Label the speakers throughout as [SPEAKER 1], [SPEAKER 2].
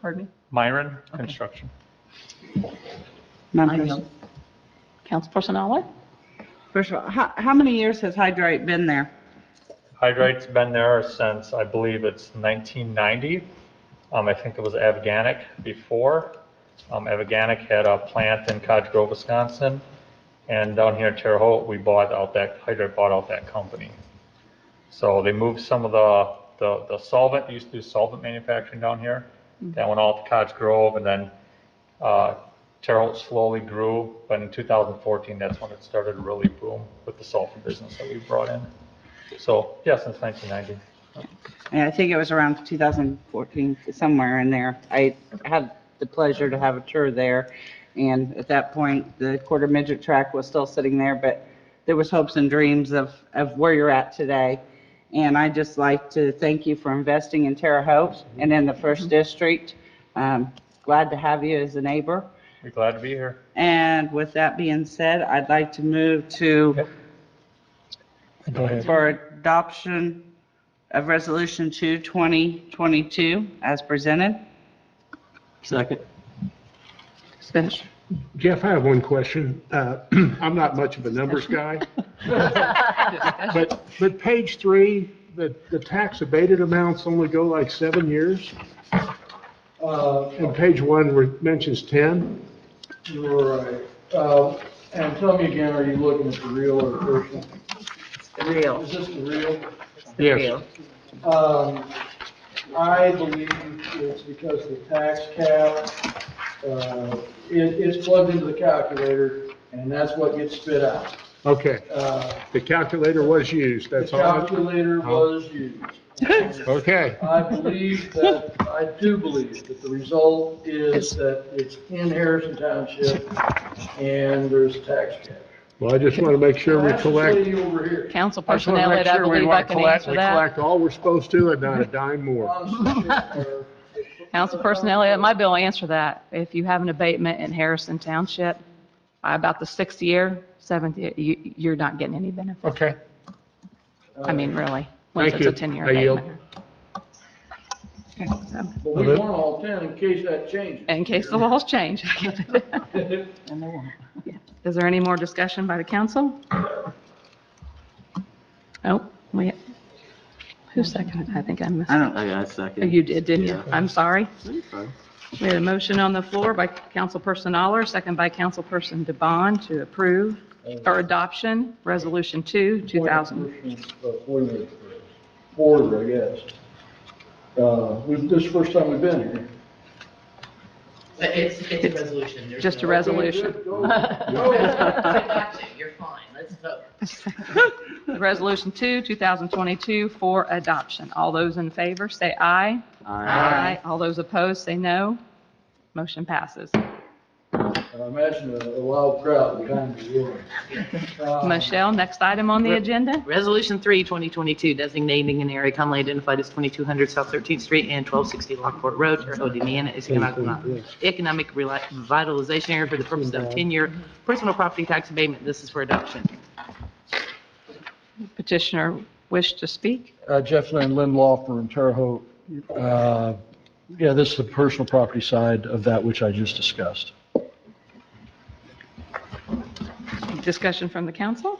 [SPEAKER 1] Pardon me?
[SPEAKER 2] Myron Construction.
[SPEAKER 1] I know.
[SPEAKER 3] Councilperson Aller?
[SPEAKER 4] First of all, how, how many years has Hydrite been there?
[SPEAKER 2] Hydrite's been there since, I believe it's 1990. Um, I think it was Avganic before. Um, Avganic had a plant in Cottage Grove, Wisconsin. And down here in Terre Haute, we bought out that, Hydrite bought out that company. So they moved some of the, the, the solvent, they used to do solvent manufacturing down here. That went all to Cottage Grove and then, uh, Terre Haute slowly grew. But in 2014, that's when it started to really boom with the sulfur business that we brought in. So, yeah, since 1990.
[SPEAKER 4] And I think it was around 2014, somewhere in there. I had the pleasure to have a tour there. And at that point, the quarter midget track was still sitting there, but there was hopes and dreams of, of where you're at today. And I just like to thank you for investing in Terre Haute and in the first district. Um, Glad to have you as a neighbor.
[SPEAKER 2] We're glad to be here.
[SPEAKER 4] And with that being said, I'd like to move
[SPEAKER 2] Yep.
[SPEAKER 4] to,
[SPEAKER 2] Go ahead.
[SPEAKER 4] for adoption of Resolution 2, 2022, as presented.
[SPEAKER 3] Second. Spanish.
[SPEAKER 5] Jeff, I have one question. Uh, I'm not much of a numbers guy. But, but page three, the, the tax abated amounts only go like seven years.
[SPEAKER 6] Uh,
[SPEAKER 5] And page one re- mentions 10.
[SPEAKER 6] You're right. Uh, And tell me again, are you looking at the real or personal?
[SPEAKER 4] Real.
[SPEAKER 6] Is this the real?
[SPEAKER 5] Yes.
[SPEAKER 6] Um, I believe it's because the tax cap, uh, it, it's plugged into the calculator, and that's what gets spit out.
[SPEAKER 5] Okay,
[SPEAKER 6] Uh,
[SPEAKER 5] the calculator was used,
[SPEAKER 6] The
[SPEAKER 5] that's all.
[SPEAKER 6] calculator was used.
[SPEAKER 5] Okay,
[SPEAKER 6] I believe that, I do believe that the result is that it's in Harrison Township, and there's a tax cap.
[SPEAKER 5] well, I just want to make sure we
[SPEAKER 6] That's the
[SPEAKER 5] collect,
[SPEAKER 6] city over here.
[SPEAKER 5] I just
[SPEAKER 3] Councilperson
[SPEAKER 5] want to make
[SPEAKER 3] Elliott, I
[SPEAKER 5] sure we
[SPEAKER 3] believe I
[SPEAKER 5] want
[SPEAKER 3] can answer
[SPEAKER 5] we
[SPEAKER 3] that.
[SPEAKER 5] collect all we're supposed to and not a dime more.
[SPEAKER 6] uh,
[SPEAKER 3] Councilperson Elliott, my bill will answer that. If you have an abatement in Harrison Township, by about the sixth year, seventh year, you, you're not getting any benefit.
[SPEAKER 5] Okay,
[SPEAKER 3] I mean, really, once
[SPEAKER 5] Thank
[SPEAKER 3] it's a
[SPEAKER 5] you.
[SPEAKER 3] 10-year
[SPEAKER 5] I yield.
[SPEAKER 3] abatement.
[SPEAKER 6] But we want all ten in case that changes.
[SPEAKER 3] In case the laws change.
[SPEAKER 4] And they won't.
[SPEAKER 3] Is there any more discussion by the council? Oh, wait. Who seconded? I think I missed.
[SPEAKER 4] I don't,
[SPEAKER 7] I got a
[SPEAKER 3] Oh,
[SPEAKER 7] second.
[SPEAKER 3] You did, didn't you?
[SPEAKER 7] Yeah.
[SPEAKER 3] I'm sorry.
[SPEAKER 7] fine.
[SPEAKER 3] We had a motion on the floor by Councilperson Aller, second by Councilperson DeBon to approve or adoption, Resolution 2, 2000.
[SPEAKER 6] uh, Appointment Order, I guess. Uh, we- this is the first time we've been here.
[SPEAKER 8] It's, it's a resolution. There's
[SPEAKER 3] Just a
[SPEAKER 8] no-
[SPEAKER 3] resolution.
[SPEAKER 6] Go, go.
[SPEAKER 8] It's an action. You're fine. Let's vote.
[SPEAKER 3] Resolution 2, 2022 for adoption. All those in favor, say aye.
[SPEAKER 7] Aye.
[SPEAKER 3] All those opposed, say no. Motion passes.
[SPEAKER 6] I imagine a a loud crowd behind you. roaring. Uh,
[SPEAKER 3] Michelle, next item on the agenda?
[SPEAKER 8] Resolution 3, 2022, designating an area commonly identified as 2200 South 13th Street and 1260 Lockport Road, Terre Haute, Indiana, as economic economic reli- revitalization area for the purpose of 10-year personal property tax abatement. This is for adoption.
[SPEAKER 3] Petitioner wish to speak?
[SPEAKER 6] Uh, Jeff Lynn, Lynn Law Firm, Terre Haute. Uh, Yeah, this is the personal property side of that which I just discussed.
[SPEAKER 3] Discussion from the council?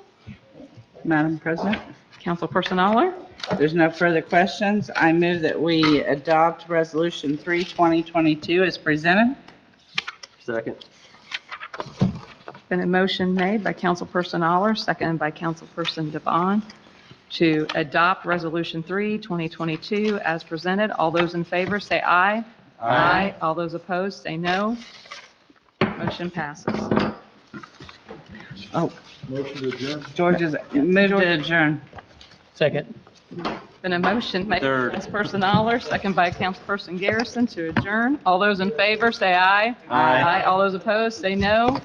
[SPEAKER 4] Madam President,
[SPEAKER 3] Councilperson Aller?
[SPEAKER 4] there's no further questions. I move that we adopt Resolution 3, 2022, as presented.
[SPEAKER 7] Second.
[SPEAKER 3] Been a motion made by Councilperson Aller, seconded by Councilperson Devon, to adopt Resolution 3, 2022, as presented. All those in favor, say aye. Aye. All those opposed, say no. Motion passes.
[SPEAKER 6] Motion to adjourn.
[SPEAKER 4] George is, move to adjourn.
[SPEAKER 3] Been a motion made by
[SPEAKER 7] Third.
[SPEAKER 3] Councilperson Aller, seconded by Councilperson Garrison, to adjourn. All those in favor, say aye.
[SPEAKER 7] Aye.
[SPEAKER 3] All those opposed, say no.